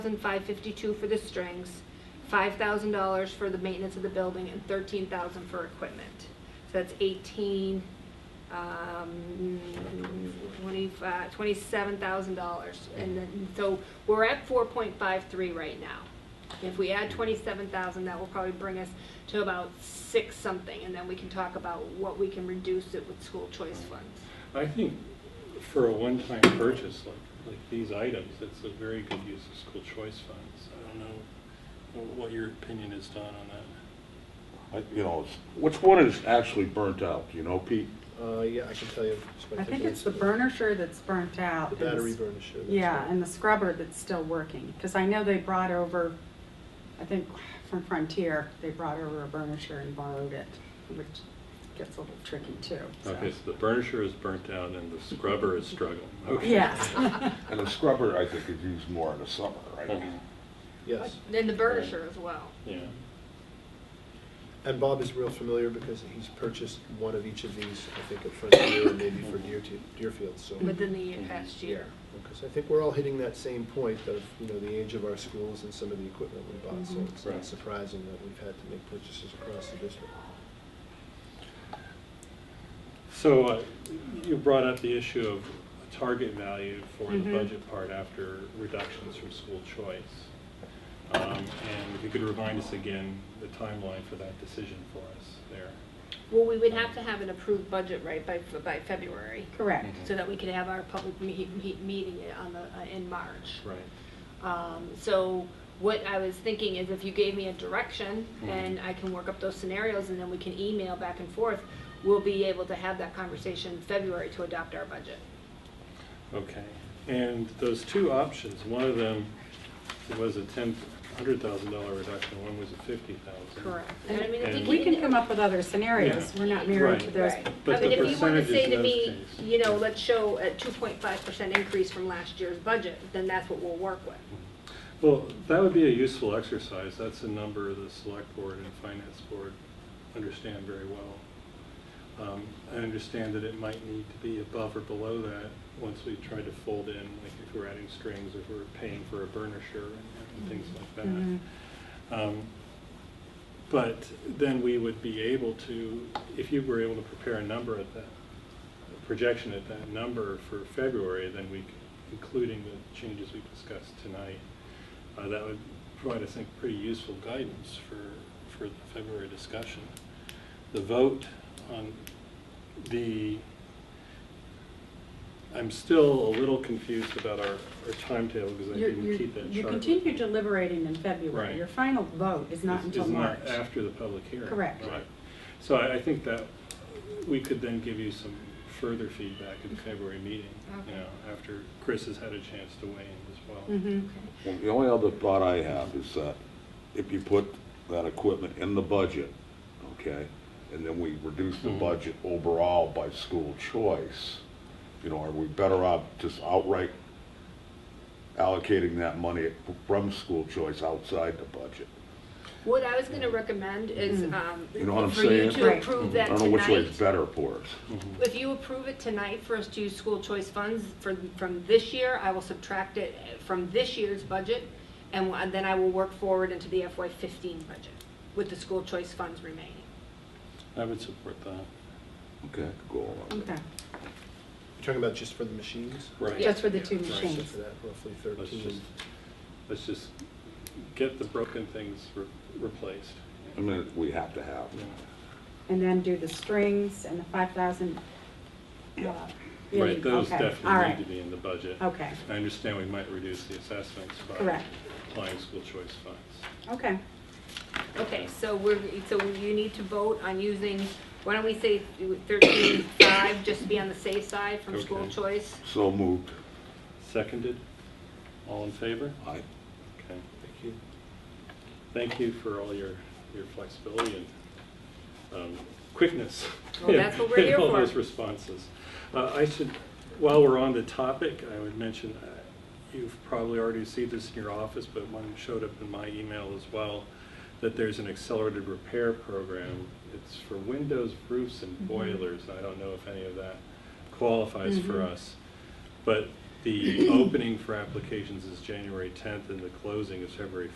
$1,552 for the strings, $5,000 for the maintenance of the building, and $13,000 for equipment. So that's 18, um, 25, $27,000. And then, so we're at 4.53 right now. If we add 27,000, that will probably bring us to about six something, and then we can talk about what we can reduce it with school choice funds. I think for a one-time purchase like, like these items, it's a very good use of school choice funds. I don't know wh- what your opinion is, Don, on that. I- You know, it's- which one is actually burnt out, you know, Pete? Uh, yeah, I can tell you. I think it's the burnisher that's burnt out. The and the battery s- burnisher. that's Yeah, right. and the scrubber that's still working, because I know they brought over, I think from Frontier, they brought over a burnisher and borrowed it, which gets a little tricky too. so. Okay, so the burnisher is burnt out and the scrubber is struggling. Okay. Yes, And a scrubber, I think, is used more in the summer, right? Mhm. Yes, And the burnisher as well. Yeah, and Bob is real familiar because he's purchased one of each of these, I think, at Frontier and maybe for Deer- Deerfield, so. within the past year. Because I think we're all hitting that same point of, you know, the age of our schools and some of the equipment we bought, so Mm-hmm. it's Right. not surprising that we've had to make purchases across the district. So uh, you brought up the issue of a target value for the Mhm. budget part after reductions from school choice. Um, And if you could remind us again the timeline for that decision for us there. Well, we would have to have an approved budget, right, by, by February, correct. so that we could have our public me- me- meeting on the, uh, in March. Right. Um, so what I was thinking is if you gave me a direction Mm-hmm. and I can work up those scenarios and then we can email back and forth, we'll be able to have that conversation in February to adopt our budget. Okay, and those two options, one of them was a ten, hundred thousand dollar reduction, one was a fifty thousand. And I mean, if And- you We give can me- come up with other scenarios, we're not married to Right. those. Right. but I mean, the if you want to percentages say in to those me, cases. you know, let's show a two point five percent increase from last year's budget, then that's what we'll work with. Well, that would be a useful exercise, that's a number the select board and finance board understand very well. Um, I understand that it might need to be above or below that, once we try to fold in, like if we're adding strings, if we're paying for a burnisher and and things like that. Mhm. Um, But then we would be able to, if you were able to prepare a number at that, a projection at that number for February, then we, c- including the changes we discussed tonight, uh, that would provide, I think, pretty useful guidance for, for the February discussion. The vote on the, I'm still a little confused about our, our timetable because I You're- didn't you're- keep that chart. You with continue me. deliberating in Right. February. Your final vote is not Is- until is March. after the public hearing. Correct. Right. So I, I think that we could then give you some further feedback at the February meeting, you Okay. know, after Chris has had a chance to weigh in as well. Mhm. Well, The only other thought I have is that if you put that equipment in the budget, okay, and then we reduce the Mhm. budget overall by school choice, you know, are we better off just outright allocating that money from school choice outside the budget? What I was gonna recommend is, um, You know what I'm for you saying? to Hmm. Right. approve I that don't know which way tonight. is better for us. Mm-hmm. If you approve it tonight for us to use school choice funds for, from this year, I will subtract it from this year's budget, and wh- then I will work forward into the FY fifteen budget with the school choice funds remaining. I would support that. Okay, go along. Okay, You're talking about just for the machines? Yeah. Right. just for the two Yeah. So machines. for that, roughly Let's just, thirteen. let's just get the broken things re- replaced. I mean, we have to have. Yeah. And then do the strings and the five thousand. uh, Right, those All definitely need to right, be in the budget. okay, I understand we might reduce the assessments by Correct. applying school choice funds. okay. Okay, so we're, so you need to vote on using, why don't we say thirteen five, just to be on the safe side from school Okay. choice? So moved. Seconded? All in favor? Aye. Okay. Thank you. Thank you for all your, your flexibility and um, quickness. Well, that's what we're in here all for. those responses. Uh, I should, while we're on the topic, I would mention, uh, you've probably already received this in your office, but one showed up in my email as well, that there's an accelerated repair program. It's for windows, Mm-hmm. Mm-hmm. roofs, and boilers. I don't know if any of that qualifies for Mhm. us. But The opening for applications is January tenth and the closing is February